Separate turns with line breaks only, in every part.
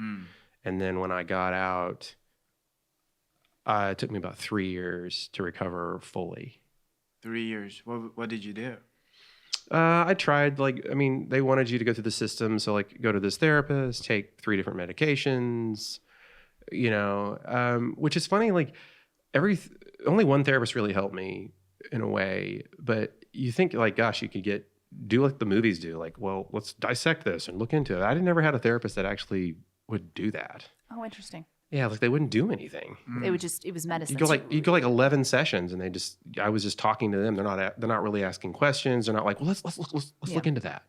Mm.
And then when I got out, uh, it took me about three years to recover fully.
Three years. What what did you do?
Uh, I tried, like, I mean, they wanted you to go through the system. So, like, go to this therapist, take three different medications, you know, um, which is funny. Like, every, th- only one therapist really helped me in a way. But you think, like, gosh, you could get, do like the movies do, like, well, let's dissect this and look into it. I never had a therapist that actually would do that.
Oh, interesting.
Yeah, like, they wouldn't do anything.
Mm,
It would just, it was medicine.
You go like you go like eleven sessions, and they just I was just talking to them. They're not a- they're not really asking questions. They're not like, well, let's let's let's let's, let's
Yeah.
look into that.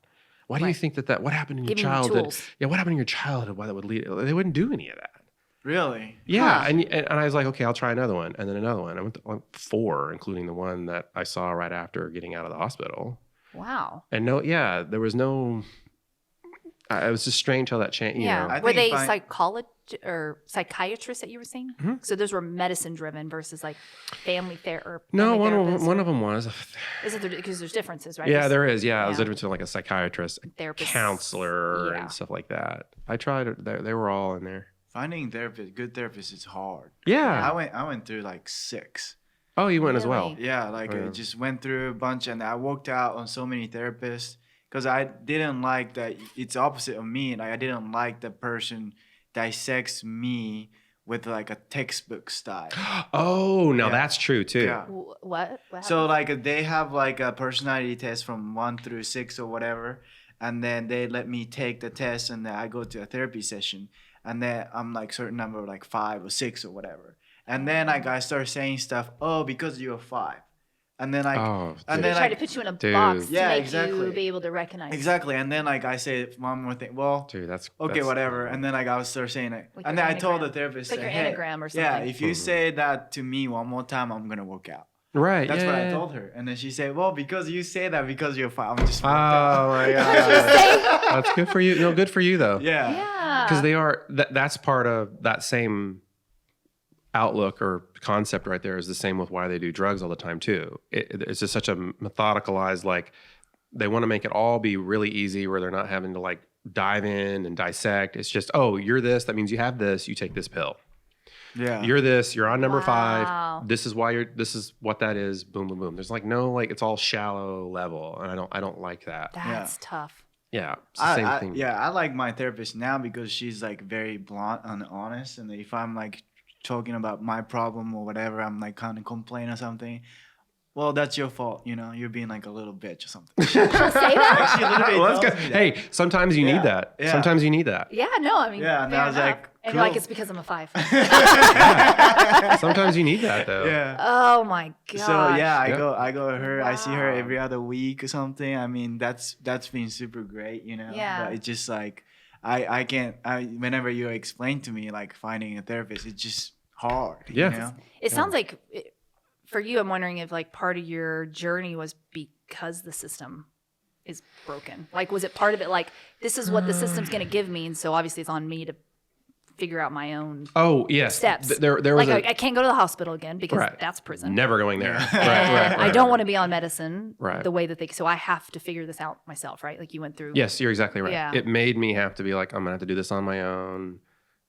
Why do you
Right.
think that that what happened in
Give me
your
the
childhood?
tools.
Yeah, what happened in your childhood? Why that would lead? They wouldn't do any of that.
Really?
Yeah,
Huh.
and, and and I was like, okay, I'll try another one, and then another one. I went to like four, including the one that I saw right after getting out of the hospital.
wow.
And no, yeah, there was no. I, it was just strange how that changed. You know,
Yeah.
I
Were
think
they
if I-
psychologist or psychiatrists that you were seeing?
Mhm.
So those were medicine driven versus like family therapy.
no, one of, one of them was.
is it because there's differences, right?
Yeah,
There's
there is. Yeah, I was
Yeah.
different to like a psychiatrist,
therapists.
counselor
Yeah.
and stuff like that. I tried. it. They, they were all in there.
Finding therapist, good therapist is hard.
Yeah.
I went I went through like six.
Oh, you went as well.
Really?
Yeah, like
Yeah.
I just went through a bunch and I walked out on so many therapists because I didn't like that. It's opposite of me. Like I didn't like the person dissects me with like a textbook style.
Oh, now
Yeah.
that's true too.
Yeah.
Wh- What? what
So
happened?
like they have like a personality test from one through six or whatever, and then they let me take the test, and then I go to a therapy session, and then I'm like certain number like five or six or whatever, and then like I start saying stuff. Oh, because you're five, and then like
oh,
and
dude.
then
try
like-
to put you in a
Dude.
box to
Yeah,
make
exactly.
you be able to recognize.
exactly, and then like I say one more thing. Well,
dude, that's
okay,
that's-
whatever, and then like I was start saying it,
Like
and
your
then I told the
anagram.
therapist,
It's like
uh,
your
"Hey,
anagram or something.
yeah, if you
Mhm.
say that to me one more time, I'm gonna walk out.
Right.
That's
yeah,
what I
yeah.
told her, and then she said, "Well, because you say that, because you're five, I'm just." walked out.
Oh my
What'd you
god.
say?
that's good for you. No, good for you though.
Yeah.
yeah.
Because they are. That, that's part of that same outlook or concept right there is the same with why they do drugs all the time too. It, it- it's just such a methodicalized like they want to make it all be really easy where they're not having to like dive in and dissect. It's just oh you're this that means you have this you take this pill.
Yeah.
You're this you're on number
Wow.
five. This is why you're this is what that is. Boom boom boom. There's like no like it's all shallow level and I don't I don't like that.
That's tough.
Yeah, it's the
I,
same
I-
thing.
yeah, I like my therapist now because she's like very blunt and honest. And if I'm like talking about my problem or whatever, I'm like kind of complaining or something. Well, that's your fault. You know, you're being like a little bitch or something.
Don't say that.
She literally
Well, that's
tells
good.
me that.
Hey, sometimes you
Yeah,
need that.
yeah.
Sometimes you need that.
Yeah, no, I mean,
Yeah, and
fair
I was
enough.
like,
and you're like,
cool.
it's because I'm a five.
Sometimes you need that though.
yeah.
oh my god.
So yeah, I
Yeah.
go, I go to her. I see her
Wow.
every other week or something. I mean, that's that's been super great, you know.
Yeah.
But it's just like, I I can't. I whenever you explain to me like finding a therapist, it's just hard.
Yeah.
You know?
It
Yeah.
sounds like it, for you, I'm wondering if like part of your journey was because the system is broken. Like, was it part of it like this is what the system's going to give me, and so obviously it's on me to figure out my own
Oh yes.
Steps.
Th- There, there was
like
a
I I can't go to the hospital again because
Right.
that's prison.
never going there.
Yeah.
And I don't want
right.
to be on medicine
Right.
the way that they. So I have to figure this out myself, right? Like you went through.
Yes, you're exactly right.
Yeah.
It made me have to be like, I'm gonna have to do this on my own.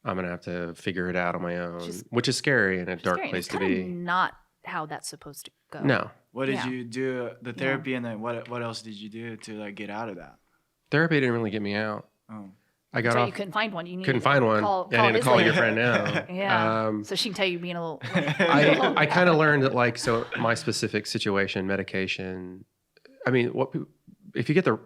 I'm gonna have to figure it out on my own,
Just-
which is scary and a dark place
Experience.
to
Kinda
be.
Not how that's supposed to go.
No,
What did
Yeah.
you do? uh, The therapy, and then what what else did you do to like get out of that?
therapy didn't really get me out.
Oh.
I got
That's right,
off.
you couldn't find one. You needed
couldn't
to
find one.
Call,
I need to
his
call
lawyer.
your friend now.
Yeah.
Um,
So she can tell you being a little.
I, I kind of learned that like so my specific situation medication i mean what peop- if you get the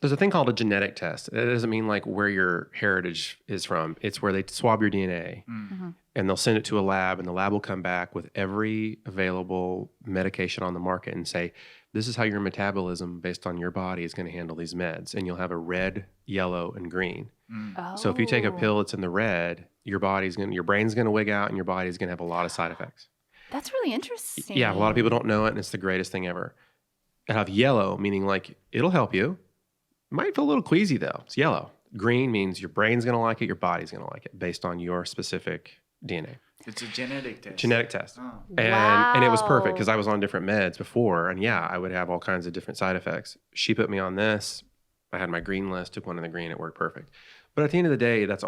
there's a thing called a genetic test that doesn't mean like where your heritage is from it's where they swab your dna
Mm.
and they'll send it to a lab and the lab will come back with every available medication on the market and say this is how your metabolism based on your body is going to handle these meds and you'll have a red yellow and green
Mm.
so if you take a
Oh,
pill that's in the red your body's going to your brain's going to wig out and your body's going to have a lot of side effects
Oh, that's really interesting.
yeah, a lot of people don't know it, and it's the greatest thing ever. I have yellow, meaning like it'll help you. Might feel a little queasy though. It's yellow. Green means your brain's gonna like it, your body's gonna like it, based on your specific DNA
It's a genetic test.
genetic test.
Oh.
And and it was perfect
Wow.
because I was on different meds before, and yeah, I would have all kinds of different side effects. She put me on this. I had my green list, took one in the green, it worked perfect. But at the end of the day, that's